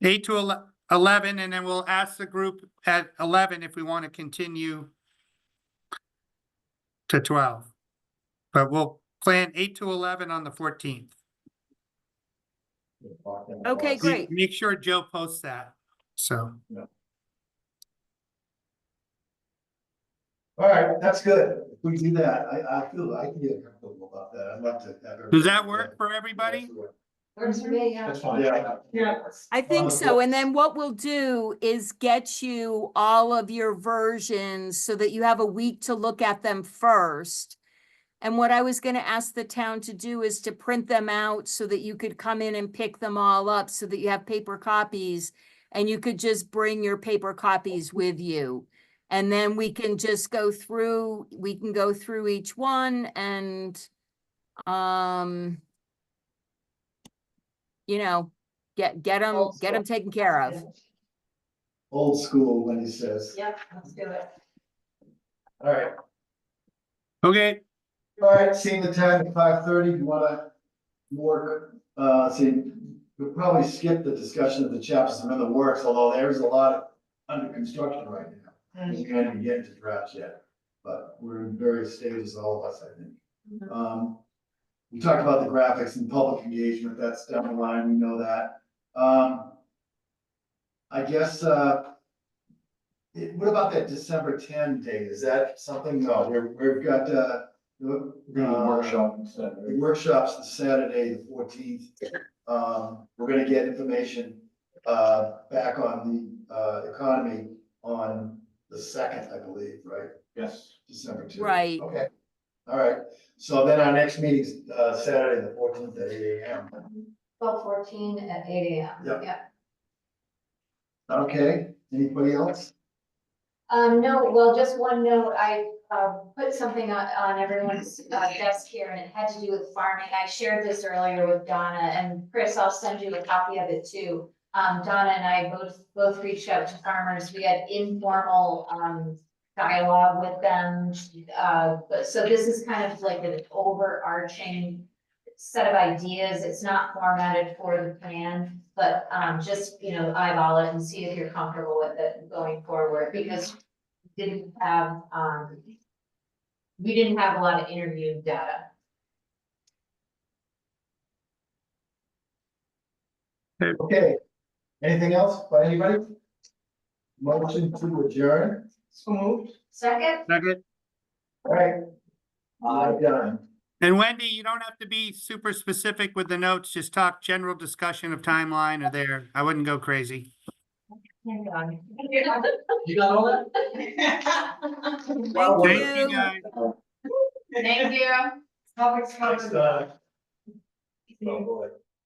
Eight to ele- eleven, and then we'll ask the group at eleven if we want to continue to twelve. But we'll plan eight to eleven on the fourteenth. Okay, great. Make sure Joe posts that, so. All right, that's good. If we do that, I, I feel, I can get comfortable about that. I'd like to. have everybody- Does that work for everybody? Works for me, yeah. fine. Yeah. I Um, think so, yeah. and then what we'll do is get you all of your versions so that you have a week to look at them first. And what I was gonna ask the town to do is to print them out so that you could come in and pick them all up so that you have paper copies. And you could just bring your paper copies with you. And then we can just go through, we can go through each one and, um, you know, Get, get them, Old get school. them taken care of. Old school, when he says. Yep, let's do it. All right, Okay, all right, seeing the time, five thirty, you wanna work, uh, see, we'll probably skip the discussion of the chapters that are in the works, although there's a lot under construction right now. We can't even get to drafts yet, but we're in various stages, all of us, I think. Mhm. Um, we talked about the graphics and public engagement, that's down the line, we know that. Um, I guess, uh, it- what about that December ten date? Is that something, no, we've, we've got, uh, the- uh, instead. the workshops the Saturday, the fourteenth. Um, we're gonna get information, uh, back on the, uh, economy on the second, I believe, right? Yes. December two. Right. Okay, all right, so then our next meeting's, uh, Saturday, the fourteenth at eight AM, Twelve fourteen at eight AM. Yep. okay, anybody else? Um, no, well, just one note, I, uh, put something on, on everyone's uh, desk here and it had to do with farming. I shared this earlier with Donna and Chris, I'll send you a copy of it too. Um, Donna and I both, both reached out to farmers. We had informal, um, dialogue with them. Uh, but, so this is kind of like an overarching set of ideas. It's not formatted for the plan. But um just, you know, eyeball it and see if you're comfortable with it going forward, because we didn't have um. We didn't have a lot of interview data. Okay, anything else by anybody? Motion to adjourn, So moved. Second, second. all right. I'm done. And Wendy, you don't have to be super specific with the notes, just talk general discussion of timeline or there. I wouldn't go crazy. hang on. You got all that? Thank Thank you you. guys. Thank you. uh, Thanks, Donna. Oh, boy.